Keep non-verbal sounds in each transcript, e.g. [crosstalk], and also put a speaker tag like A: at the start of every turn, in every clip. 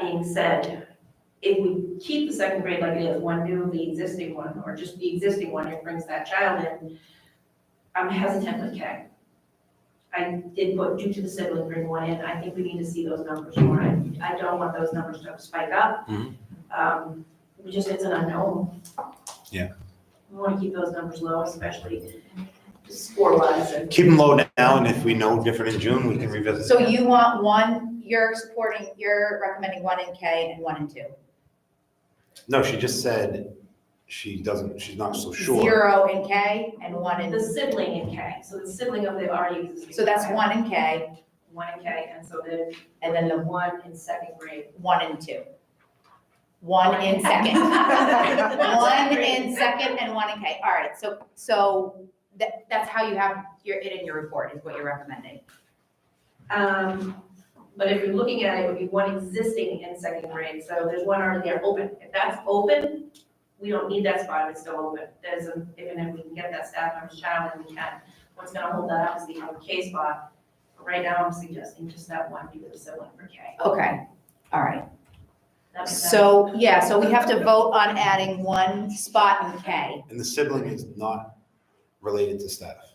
A: being said, if we keep the second grade like it is, one new, the existing one, or just the existing one, it brings that child in, I'm hesitant with K. I did put due to the sibling bring one in, I think we need to see those numbers more, I, I don't want those numbers to spike up.
B: Mhm.
A: Um, we just, it's an unknown.
B: Yeah.
A: We wanna keep those numbers low, especially score wise and.
B: Keep them low now, and if we know different in June, we can revisit.
C: So you want one, you're supporting, you're recommending one in K and one in two.
B: No, she just said she doesn't, she's not so sure.
C: Zero in K and one
A: The
C: in,
A: sibling in K, so the sibling of the already existing.
C: so that's
A: child.
C: one in K
A: One in K, and so then,
C: and then the
A: one in second grade.
C: one in two. One in second. [laughs] One in second and one in K. All right, so, so that, that's how you have your, it in your report is what you're recommending.
A: Um, but if you're looking at it, it would be one existing in second grade, so there's one already there open. If that's open, we don't need that spot, if it's still open. There's, a- even if we can get that staff member's child, and we can, what's gonna hold that up is the other K spot. But Right now, I'm suggesting just that one, because it's sibling for K.
C: Okay, all right.
A: That makes sense?
C: So, yeah, so we have to vote on adding one spot in K.
B: And the sibling is not related to staff.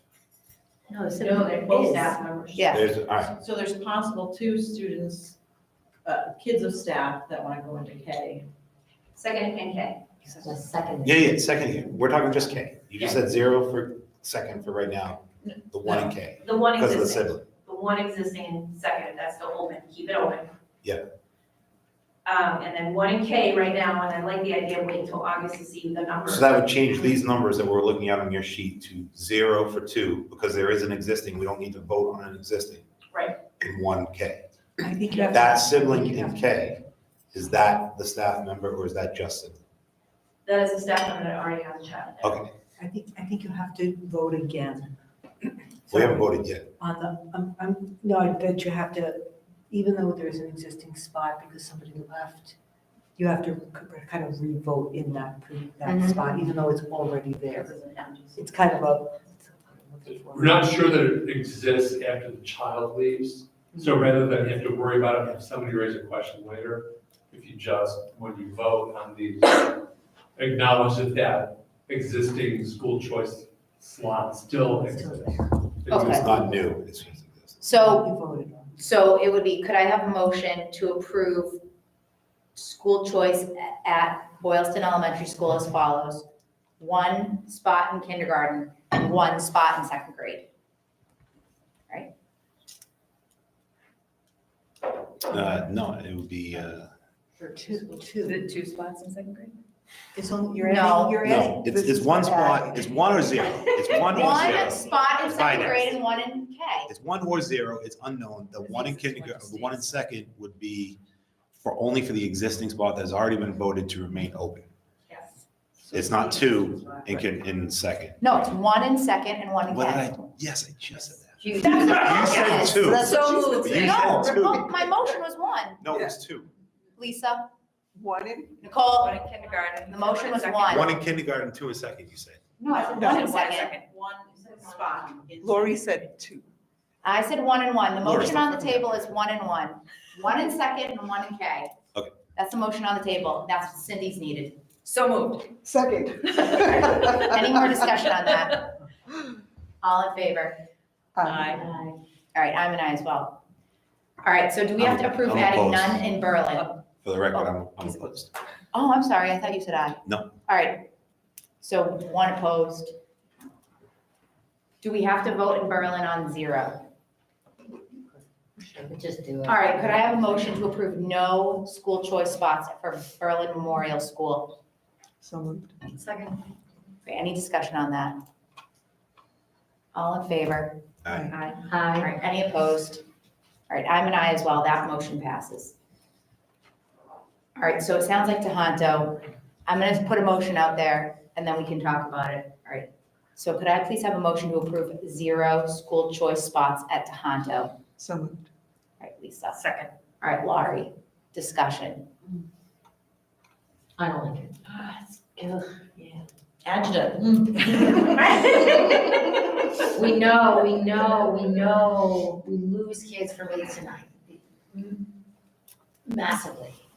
C: No,
A: No, they're both staff members.
C: Yeah.
B: There's, all right,
D: So there's possible two students, uh, kids of staff that want to go into K.
A: Second and K.
E: The second.
B: yeah, yeah, second here, we're talking just K. You just said zero for second for right now, the one in K,
A: The one
B: because of the
A: existing.
B: sibling.
A: the one existing in second, that's still open, keep it open.
B: Yeah.
A: Um, and then one in K right now, and I like the idea of waiting till August to see the numbers.
B: So that would change these numbers that we're looking at on your sheet to zero for two, because there is an existing, we don't need to vote on an existing.
A: Right.
B: In one K.
D: I think
B: That sibling in K, is that the staff member or is that Justin?
A: That is a staff member that already has a child there.
B: Okay,
F: I think, I think you have to vote again.
B: we haven't voted yet.
F: On the, um, um, no, I bet you have to, even though there's an existing spot because somebody left, you have to k- kind of re-vote in that, pre- that
E: Mm-hmm.
C: Mhm.
F: spot, even though it's already there.
A: This is an empty seat.
F: It's kind of a.
G: We're not sure that it exists after the child leaves, so rather than have to worry about it, have somebody raise a question later, if you just, when you vote on these, acknowledge that that existing school choice slot still exists.
C: Okay.
B: It's not new, it's just existing.
C: So
F: You voted on.
C: So it would be, could I have a motion to approve school choice at Boylston Elementary School as follows? One spot in kindergarten and one spot in second grade.
B: Uh, no, it would be, uh,
D: For
F: Two, two.
E: The two spots in second grade?
F: It's only, you're
C: No.
F: adding, you're adding.
B: no, it's, it's one spot, it's one or zero, it's one or
C: One
B: zero.
C: spot in second
B: Finance.
C: grade and one in K.
B: It's one or zero, it's unknown, the one in kindergarten, the one in second would be for, only for the existing spot that's already been voted to remain open.
A: Yes.
B: It's not two in, kin- in second.
C: No, it's one in second and one in
B: What did
C: K.
B: I, yes, I just said that.
C: You
B: You said two.
E: That's what she said.
C: So moved.
B: You
C: No,
B: said
C: the
B: two.
C: mo- my motion was one.
B: No, it was two.
C: Lisa,
F: One in.
C: Nicole,
A: One in kindergarten.
C: The motion was
A: Second.
C: one.
B: One in kindergarten, two in second, you said.
C: no, I said
F: No.
C: one in second.
D: One spot. in-
F: said two.
C: I said one and one. The
B: Laura,
C: motion
B: stop
C: on
B: that.
C: the table is one and one. One in second and one in K.
B: Okay.
C: That's the motion on the table. That's what Cindy's needed.
E: So moved.
F: Second.
C: Any more discussion on that?
E: [laughs]
C: All in favor?
D: Aye.
C: All right, I'm an aye as well. All right, so do we have to approve
B: I'm
C: adding
B: opposed.
C: none in Berlin?
B: For the record, I'm, I'm opposed.
C: Oh, I'm sorry, I thought you said aye.
B: No.
C: All right, so one opposed. Do we have to vote in Berlin on zero?
E: Just do it.
C: All right, could I have a motion to approve no school choice spots for Berlin Memorial School?
F: So moved.
A: Second.
C: Okay, Any discussion on that? All in favor?
B: Aye.
C: Aye. All
E: Aye.
C: right, any opposed? All right, I'm an aye as well, that motion passes. All right, so it sounds like Tohoto, I'm gonna put a motion out there, and then we can talk about it, all right? So could I please have a motion to approve zero school choice spots at Tohoto? All
F: So moved.
C: right, Lisa.
A: Second.
C: All right, Laurie, discussion.
E: I don't like it. Adjective. We know, we know, we know, we lose kids from it tonight. Massively.